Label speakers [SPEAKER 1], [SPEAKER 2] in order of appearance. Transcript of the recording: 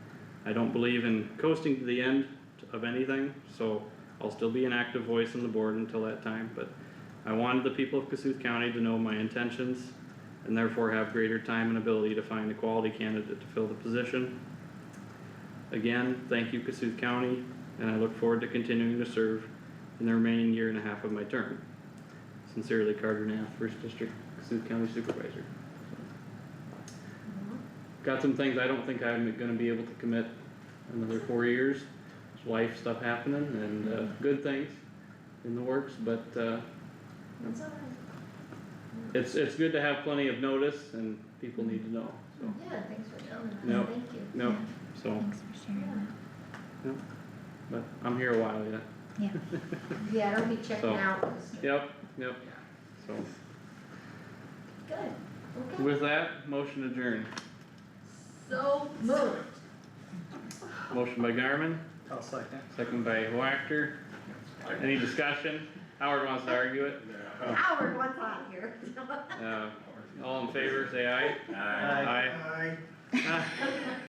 [SPEAKER 1] I don't believe in coasting to the end of anything, so I'll still be an active voice on the board until that time, but I wanted the people of Cassuth County to know my intentions and therefore have greater time and ability to find a quality candidate to fill the position. Again, thank you Cassuth County, and I look forward to continuing to serve in the remaining year and a half of my term. Sincerely, Carter Nath, First District, Cassuth County Supervisor.
[SPEAKER 2] Mm-hmm.
[SPEAKER 1] Got some things I don't think I'm gonna be able to commit another four years. There's Life stuff happening and, uh, good things in the works, but, uh,
[SPEAKER 2] That's alright.
[SPEAKER 1] it's, it's good to have plenty of notice and people need to know, so,
[SPEAKER 2] Yeah, thanks for telling us,
[SPEAKER 1] No,
[SPEAKER 2] thank you.
[SPEAKER 1] no, so,
[SPEAKER 3] Thanks for sharing
[SPEAKER 1] but I'm here a while yet.
[SPEAKER 3] that. Yeah.
[SPEAKER 2] Yeah, I'll be checking
[SPEAKER 1] So,
[SPEAKER 2] out. this-
[SPEAKER 1] Yep, yep, so,
[SPEAKER 2] Good, okay.
[SPEAKER 1] with that, motion adjourned.
[SPEAKER 2] So moved.
[SPEAKER 1] Motion by Garmin,
[SPEAKER 4] I'll second.
[SPEAKER 1] second by Wactor. Any discussion? Howard wants to argue it.
[SPEAKER 2] Howard, what's on here?
[SPEAKER 1] Uh, all in favor, say aye.
[SPEAKER 4] Aye.
[SPEAKER 1] Aye.